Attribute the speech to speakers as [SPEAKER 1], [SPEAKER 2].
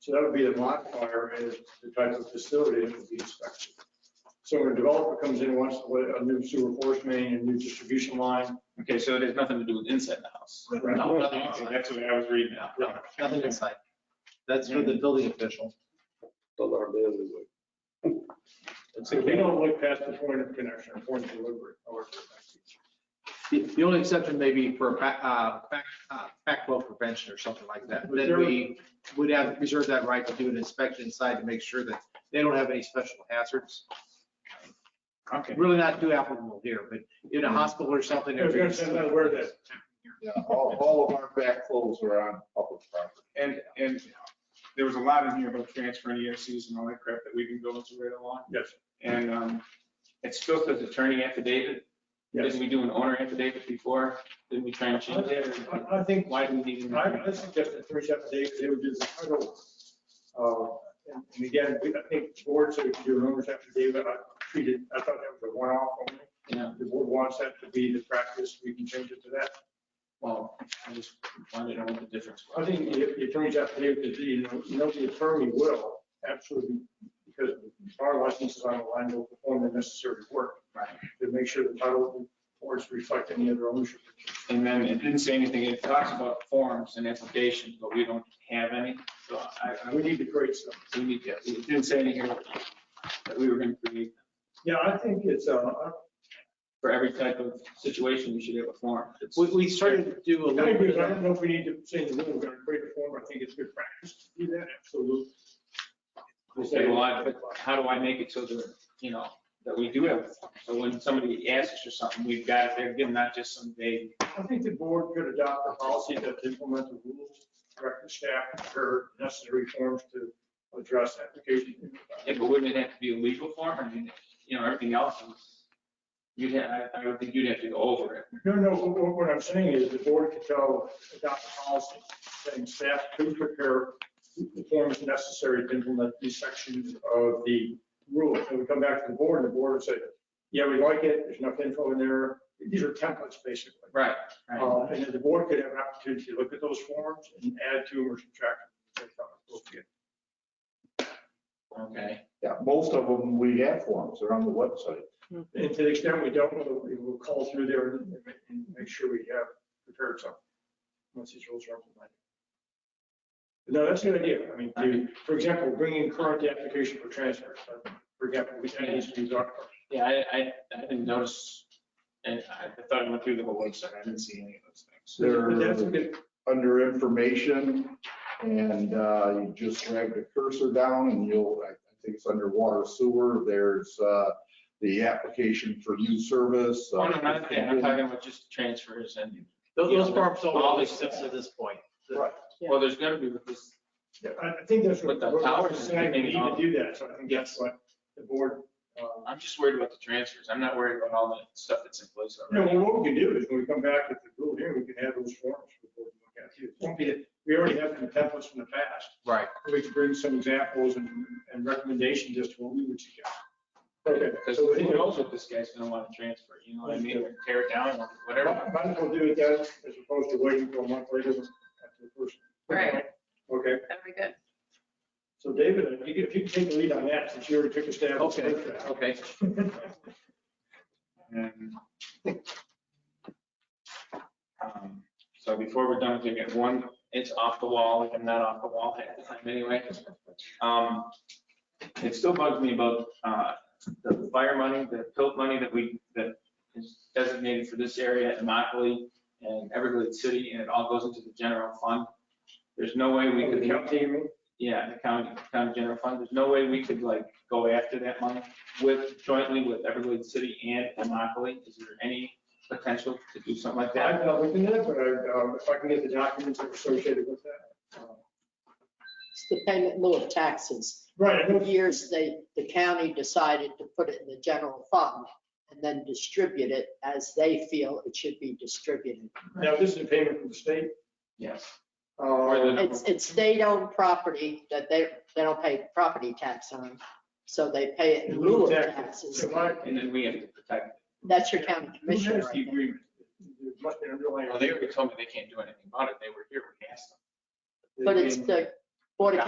[SPEAKER 1] So that would be the modifier is the type of facility that would be inspected. So when a developer comes in, and wants to put a new sewer force main, a new distribution line,
[SPEAKER 2] Okay, so it has nothing to do with inside the house.
[SPEAKER 1] Right.
[SPEAKER 3] No, nothing
[SPEAKER 2] Okay,
[SPEAKER 3] inside.
[SPEAKER 2] That's what I was reading now.
[SPEAKER 3] No, nothing inside. That's for
[SPEAKER 1] Mm.
[SPEAKER 3] the building official.
[SPEAKER 1] so we don't look past the point of connection, or point of delivery. however that's-
[SPEAKER 3] The, the only exception may be for, back- uh, back, uh, backflow prevention or something like that. Then we would have, reserve that right to do an inspection inside to make sure that they don't have any special hazards.
[SPEAKER 2] Okay.
[SPEAKER 3] Really not too applicable here, but in a hospital or something.
[SPEAKER 1] Mm. I was gonna say, I'm aware that-
[SPEAKER 4] Yeah, all, all of our backflows are on public property.
[SPEAKER 2] And, and there was a lot in here about transferring ERCs and all that crap that we've been going through right along.
[SPEAKER 1] Yes,
[SPEAKER 2] And um, it still says attorney affidavit.
[SPEAKER 1] yes.
[SPEAKER 2] Didn't we do an owner affidavit before? Didn't we try and change that?
[SPEAKER 1] I I think
[SPEAKER 2] Why do we need? an
[SPEAKER 1] I I suggest that three separate days, they would do the title. Uh, And and again, we- I think the board said if you do an owner's affidavit, I treated, I thought that was a one-off only.
[SPEAKER 2] Yeah.
[SPEAKER 1] If The board wants that to be the practice, we can change it to that.
[SPEAKER 2] Well, I just wanted to know what the difference
[SPEAKER 1] I
[SPEAKER 2] was.
[SPEAKER 1] think the the attorney's affidavit, is, you know, you know, the attorney will absolutely, because our license is on the line, will perform the necessary work.
[SPEAKER 2] Right.
[SPEAKER 1] To make sure the title boards reflect any other ownership.
[SPEAKER 2] And then it didn't say anything, it talks about forms and applications, but we don't have any. So I, I
[SPEAKER 1] We
[SPEAKER 2] would,
[SPEAKER 1] need to create some.
[SPEAKER 2] we need, it didn't say anything that we were going to create.
[SPEAKER 1] Yeah, I think it's, uh, I
[SPEAKER 2] For every type of situation, we should have a form. It's-
[SPEAKER 3] We, we started to do a
[SPEAKER 1] I
[SPEAKER 3] little
[SPEAKER 1] agree,
[SPEAKER 3] bit
[SPEAKER 1] but I
[SPEAKER 3] of
[SPEAKER 1] don't know if we need to change the rule, we're gonna create a form, I think it's good practice to do that, absolutely.
[SPEAKER 2] Okay, well, I, but how do I make it so that, you know, that we do have, a form? so when somebody asks for something, we've got it there, give them not just some vague.
[SPEAKER 1] I think the board could adopt a policy that to implement the rules, direct the staff to prepare necessary forms to address application.
[SPEAKER 2] Yeah, but wouldn't it have to be a legal form? I mean, you know, everything else is, you'd have, I, I would think you'd have to go over it.
[SPEAKER 1] No, no, what, what I'm saying is the board could tell, adopt a policy saying staff to prepare the forms necessary to implement these sections of the rule. And we come back to the board and the board would say, yeah, we like it, there's enough info in there. These are templates basically.
[SPEAKER 2] Right.
[SPEAKER 1] Uh, And then the board could have an opportunity to look at those forms and add to them or subtract. them.
[SPEAKER 2] Okay.
[SPEAKER 4] Yeah, most of them, we have forms, they're on the website.
[SPEAKER 1] And to the extent we don't, we'll- we will call through there and ma- and make sure we have prepared something. Once these rules are implemented. No, that's a good idea. I mean, to- for example, bringing current the application for transfer. uh, For example, we can use these are.
[SPEAKER 2] Yeah, I, I, I didn't notice, and I I thought I went through the whole website, I didn't see any of those things.
[SPEAKER 1] But that's a
[SPEAKER 4] They're
[SPEAKER 1] good,
[SPEAKER 4] under information and uh, you just drag the cursor down and you'll, I think it's under water sewer, there's uh, the application for new service. Uh,
[SPEAKER 2] Oh, no, not that, I'm talking about just transfers and,
[SPEAKER 3] Those those forms don't
[SPEAKER 2] All
[SPEAKER 3] always
[SPEAKER 2] these-
[SPEAKER 3] exist at this point.
[SPEAKER 4] Right.
[SPEAKER 2] well, there's gonna be with this,
[SPEAKER 1] I I think that's what
[SPEAKER 2] With the
[SPEAKER 1] we're
[SPEAKER 2] towers,
[SPEAKER 1] saying. We
[SPEAKER 2] maybe
[SPEAKER 1] need to
[SPEAKER 2] not.
[SPEAKER 1] do that. So I think that's
[SPEAKER 2] Yes.
[SPEAKER 1] what the board. uh,
[SPEAKER 2] I'm just worried about the transfers, I'm not worried about all the stuff that's in place
[SPEAKER 1] You know,
[SPEAKER 2] already.
[SPEAKER 1] well, what we can do is when we come back with the rule here, we can have those forms before we look at it. It won't be- We already have the templates from the past.
[SPEAKER 3] Right.
[SPEAKER 1] We can bring some examples and, and recommendations as to what we would suggest. Okay.
[SPEAKER 2] Because
[SPEAKER 1] so
[SPEAKER 2] who knows what this guy's gonna wanna transfer, you know what I mean, or tear it down, or whatever.
[SPEAKER 1] Might as well do it then, as opposed to waiting for a month later after the first.
[SPEAKER 5] Right.
[SPEAKER 1] Okay,
[SPEAKER 5] That'd be good.
[SPEAKER 1] so David, if you could- if you could take the lead on that, since you already took a stab. at the
[SPEAKER 3] Okay,
[SPEAKER 1] first draft.
[SPEAKER 3] okay.
[SPEAKER 2] And, um, So before we're done, we get one, it's off the wall, I'm not off the wall half the time anyway. Um, It still bugs me about uh, the fire money, the tilt money that we, that is designated for this area in Immokalee and Everglades City, and it all goes into the general fund. There's no way we
[SPEAKER 1] Oh, the
[SPEAKER 2] could,
[SPEAKER 1] county, you mean?
[SPEAKER 2] yeah, the county, county general fund, there's no way we could like go after that money with, jointly with Everglades City and Immokalee. Is there any potential to do something like that?
[SPEAKER 1] I've not looked into that, but I, um, if I can get the documents that are associated with that. uh,
[SPEAKER 6] It's the payment in lieu of taxes.
[SPEAKER 1] Right, I know
[SPEAKER 6] For years, they, the county decided to put it in the general fund and then distribute it as they feel it should be distributed.
[SPEAKER 1] Now, this is a payment from the state.
[SPEAKER 2] Yes.
[SPEAKER 1] Uh,
[SPEAKER 6] It's, it's state-owned property that they, they don't pay property tax on, so they pay it in lieu of taxes.
[SPEAKER 1] So my-
[SPEAKER 2] And then we have to protect.
[SPEAKER 6] That's your county
[SPEAKER 1] Who
[SPEAKER 6] commissioner
[SPEAKER 1] has
[SPEAKER 6] right
[SPEAKER 1] the
[SPEAKER 6] there.
[SPEAKER 1] agreement? There must be an underlying.
[SPEAKER 2] Well, they already told me they can't do anything about it. They were here, we asked them.
[SPEAKER 6] But it's the Board of